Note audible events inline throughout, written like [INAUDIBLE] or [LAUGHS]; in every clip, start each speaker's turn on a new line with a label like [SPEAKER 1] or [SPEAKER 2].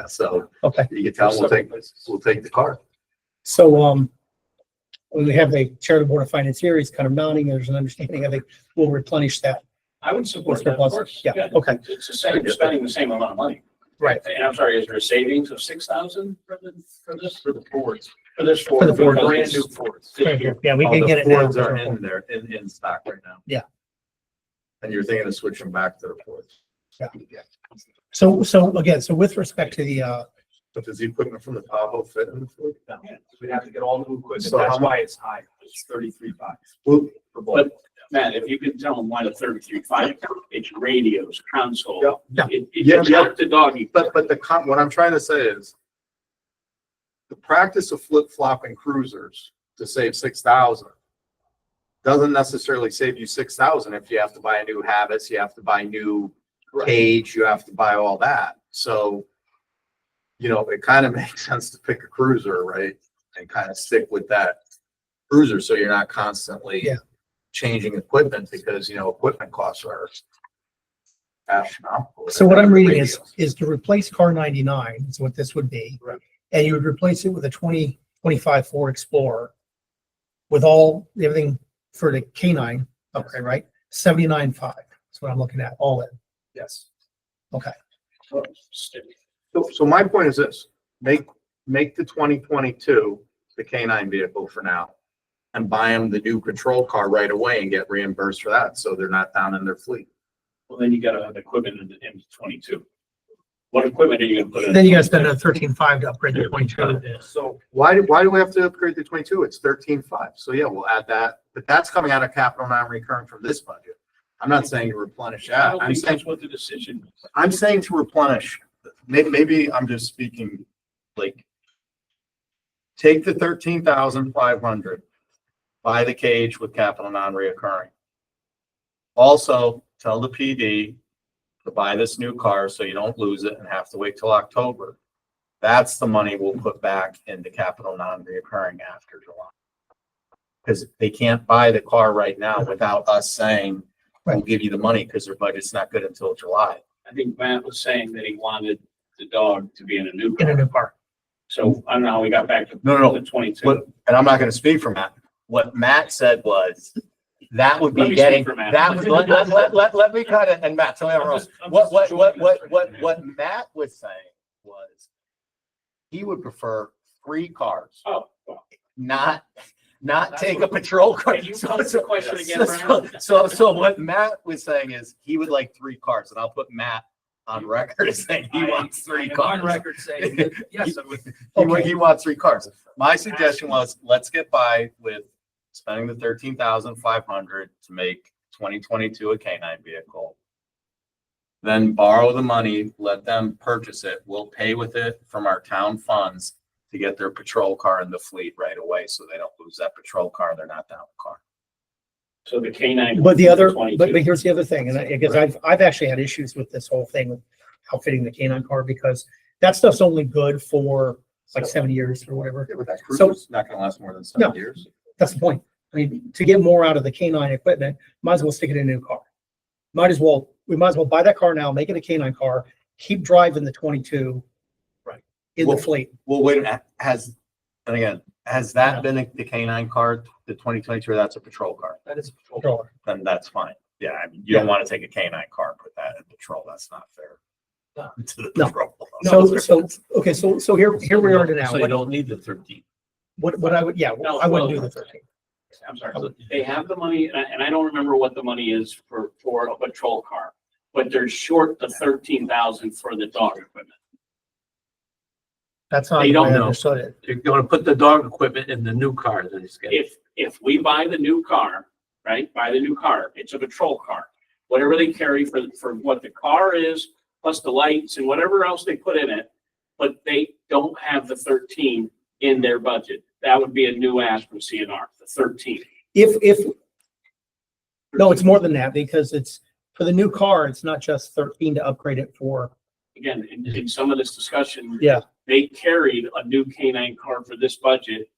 [SPEAKER 1] yeah, so
[SPEAKER 2] Okay,
[SPEAKER 1] you can tell we'll take, we'll take the car.
[SPEAKER 2] so, um, when we have the chair of the board of finance here, he's kind of nodding, there's an understanding, I think we'll replenish that.
[SPEAKER 3] I would support
[SPEAKER 2] Mr.
[SPEAKER 3] that, of
[SPEAKER 2] Plus.
[SPEAKER 3] course.
[SPEAKER 2] Yeah, okay,
[SPEAKER 3] It's the same, you're spending the same amount of money.
[SPEAKER 2] Right.
[SPEAKER 3] And I'm sorry, is there a savings of six thousand for the, for this?
[SPEAKER 1] For the boards.
[SPEAKER 3] For this
[SPEAKER 2] For
[SPEAKER 3] Ford?
[SPEAKER 2] the Ford.
[SPEAKER 3] Brand new Ford.
[SPEAKER 2] right here, yeah, we
[SPEAKER 1] All
[SPEAKER 2] can
[SPEAKER 1] the
[SPEAKER 2] get it
[SPEAKER 1] Fords Are
[SPEAKER 2] now.
[SPEAKER 1] in there, in, in stock right now.
[SPEAKER 2] Yeah.
[SPEAKER 1] And you're thinking of switching back to the Fords.
[SPEAKER 2] Yeah. So, so again, so with respect to the, uh,
[SPEAKER 1] But does the equipment from the Tahoe fit in the Ford?
[SPEAKER 4] We'd have to get all new equipment.
[SPEAKER 1] So how
[SPEAKER 4] That's
[SPEAKER 1] mu-
[SPEAKER 4] why it's high. It's thirty-three bucks
[SPEAKER 1] Well,
[SPEAKER 4] for both.
[SPEAKER 3] Matt, if you can tell them why the thirty-three five, it's radios, console.
[SPEAKER 2] Yeah,
[SPEAKER 3] It,
[SPEAKER 1] Yeah,
[SPEAKER 3] it's
[SPEAKER 1] yeah.
[SPEAKER 3] not the doggy.
[SPEAKER 1] But, but the, con- what I'm trying to say is the practice of flip flopping cruisers to save six thousand doesn't necessarily save you six thousand if you have to buy a new habits, you have to buy new cage, you have to buy all that. So, you know, it kind of [LAUGHS] makes sense to pick a cruiser, right? And kind of stick with that cruiser, so you're not constantly
[SPEAKER 2] Yeah.
[SPEAKER 1] changing equipment because, you know, equipment costs are astronomical.
[SPEAKER 2] so what I'm reading is,
[SPEAKER 1] Radios.
[SPEAKER 2] is to replace car ninety-nine is what this would be.
[SPEAKER 1] Right.
[SPEAKER 2] And you would replace it with a twenty, twenty-five Ford Explorer with all, everything for the K nine, okay, right? Seventy-nine five, that's what I'm looking at, all in.
[SPEAKER 4] Yes.
[SPEAKER 1] So, so my point is this, make, make the twenty twenty-two the K nine vehicle for now. And buy them the new patrol car right away and get reimbursed for that, so they're not down in their fleet.
[SPEAKER 3] Well, then you gotta have equipment in, in twenty-two. What equipment are you gonna put in?
[SPEAKER 2] Then you gotta spend another thirteen-five to upgrade the twenty-two.
[SPEAKER 4] So
[SPEAKER 1] Why, do- why do we have to upgrade the twenty-two? It's thirteen-five, so yeah, we'll add that, but that's coming out of capital non-recurring from this budget. I'm not saying to replenish
[SPEAKER 3] I
[SPEAKER 1] that,
[SPEAKER 3] don't
[SPEAKER 1] I'm
[SPEAKER 3] think
[SPEAKER 1] saying,
[SPEAKER 3] that's what the decision. was.
[SPEAKER 1] I'm saying to replenish, maybe, maybe I'm just speaking like. Take the thirteen thousand five hundred, buy the cage with capital non-reoccurring. Also, tell the PD to buy this new car so you don't lose it and have to wait till October. That's the money we'll put back into capital non-reoccurring after July. Because they can't buy the car right now without us saying, we'll give you the money because their budget's not good until July.
[SPEAKER 3] I think Matt was saying that he wanted the dog to be in a new
[SPEAKER 2] In a
[SPEAKER 3] car.
[SPEAKER 2] new car.
[SPEAKER 3] So I don't know how we got back to.
[SPEAKER 1] No, no, no.
[SPEAKER 3] The twenty-two.
[SPEAKER 1] What, and I'm not gonna speak for Matt. What Matt said was, that would
[SPEAKER 3] Let
[SPEAKER 1] be
[SPEAKER 3] me speak
[SPEAKER 1] getting,
[SPEAKER 3] for Matt.
[SPEAKER 1] that would, let, let, let, let, let me cut it, and Matt, tell me everyone else. What, what, what, what, what, what Matt was saying was, he would prefer three cars,
[SPEAKER 3] Oh, well,
[SPEAKER 1] not, not take a patrol car.
[SPEAKER 3] Can you pose the question again,
[SPEAKER 1] So,
[SPEAKER 3] Brian?
[SPEAKER 1] so, so what Matt was saying is, he would like three cars, and I'll put Matt on record as saying he
[SPEAKER 4] I-
[SPEAKER 1] wants three
[SPEAKER 4] I'm on
[SPEAKER 1] cars.
[SPEAKER 4] record saying, that, yes, I would
[SPEAKER 1] He, wa-
[SPEAKER 2] Okay.
[SPEAKER 1] he wants three cars. My suggestion was, let's get by with spending the thirteen thousand five hundred to make twenty twenty-two a K nine vehicle. Then borrow the money, let them purchase it. We'll pay with it from our town funds to get their patrol car in the fleet right away, so they don't lose that patrol car. They're not down a car.
[SPEAKER 3] so the K nine.
[SPEAKER 2] But the other, but, but here's the other thing, and I, because I've, I've actually had issues with this whole thing with outfitting the canine car because that stuff's only good for like seven years or whatever.
[SPEAKER 1] But that
[SPEAKER 2] cruiser's
[SPEAKER 1] not gonna last more than
[SPEAKER 2] seven No.
[SPEAKER 1] years.
[SPEAKER 2] That's the point. I mean, to get more out of the canine equipment, might as well stick it in a new car. Might as well, we might as well buy that car now, make it a canine car, keep driving the twenty-two.
[SPEAKER 4] Right.
[SPEAKER 2] In the
[SPEAKER 1] Well-
[SPEAKER 2] fleet.
[SPEAKER 1] Well, wait a minute, has, and again, has that been the K nine car, the twenty twenty-two, or that's a patrol car?
[SPEAKER 4] that is.
[SPEAKER 2] Sure.
[SPEAKER 1] then that's fine. Yeah, I mean, you don't want to take a canine car and put that in patrol. That's not fair.
[SPEAKER 4] No.
[SPEAKER 1] [LAUGHS] To the
[SPEAKER 2] No.
[SPEAKER 1] patrol.
[SPEAKER 2] [LAUGHS] So, so, okay, so, so here, here we are now.
[SPEAKER 4] So you
[SPEAKER 2] What-
[SPEAKER 4] don't need the thirteen.
[SPEAKER 2] What, what I would, yeah,
[SPEAKER 3] No,
[SPEAKER 2] I wouldn't do
[SPEAKER 3] well-
[SPEAKER 2] the thirteen.
[SPEAKER 3] I'm sorry, they have the money, and I, and I don't remember what the money is for, for a patrol car, but they're short the thirteen thousand for the dog equipment.
[SPEAKER 2] That's not,
[SPEAKER 4] They
[SPEAKER 2] the way
[SPEAKER 4] don't
[SPEAKER 2] I
[SPEAKER 4] know.
[SPEAKER 2] understood it.
[SPEAKER 4] You're gonna put the dog equipment in the new car that he's getting.
[SPEAKER 3] If, if we buy the new car, right, buy the new car, it's a patrol car. Whatever they carry for, for what the car is, plus the lights and whatever else they put in it, but they don't have the thirteen in their budget. That would be a new ask from CNR, the thirteen.
[SPEAKER 2] If, if, no, it's more than that because it's, for the new car, it's not just thirteen to upgrade it for,
[SPEAKER 3] Again, in, in some of this discussion,
[SPEAKER 2] yeah,
[SPEAKER 3] they carried a new canine car for this budget.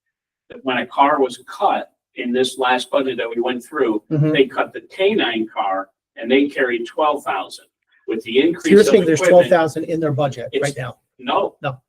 [SPEAKER 3] That when a car was cut in this last budget that we went through,
[SPEAKER 2] mhm.
[SPEAKER 3] they cut the canine car and they carried twelve thousand. With the
[SPEAKER 2] So you're
[SPEAKER 3] increase of
[SPEAKER 2] saying there's twelve
[SPEAKER 3] equipment,
[SPEAKER 2] thousand in their budget right
[SPEAKER 3] It's-
[SPEAKER 2] now.
[SPEAKER 5] No.
[SPEAKER 3] No.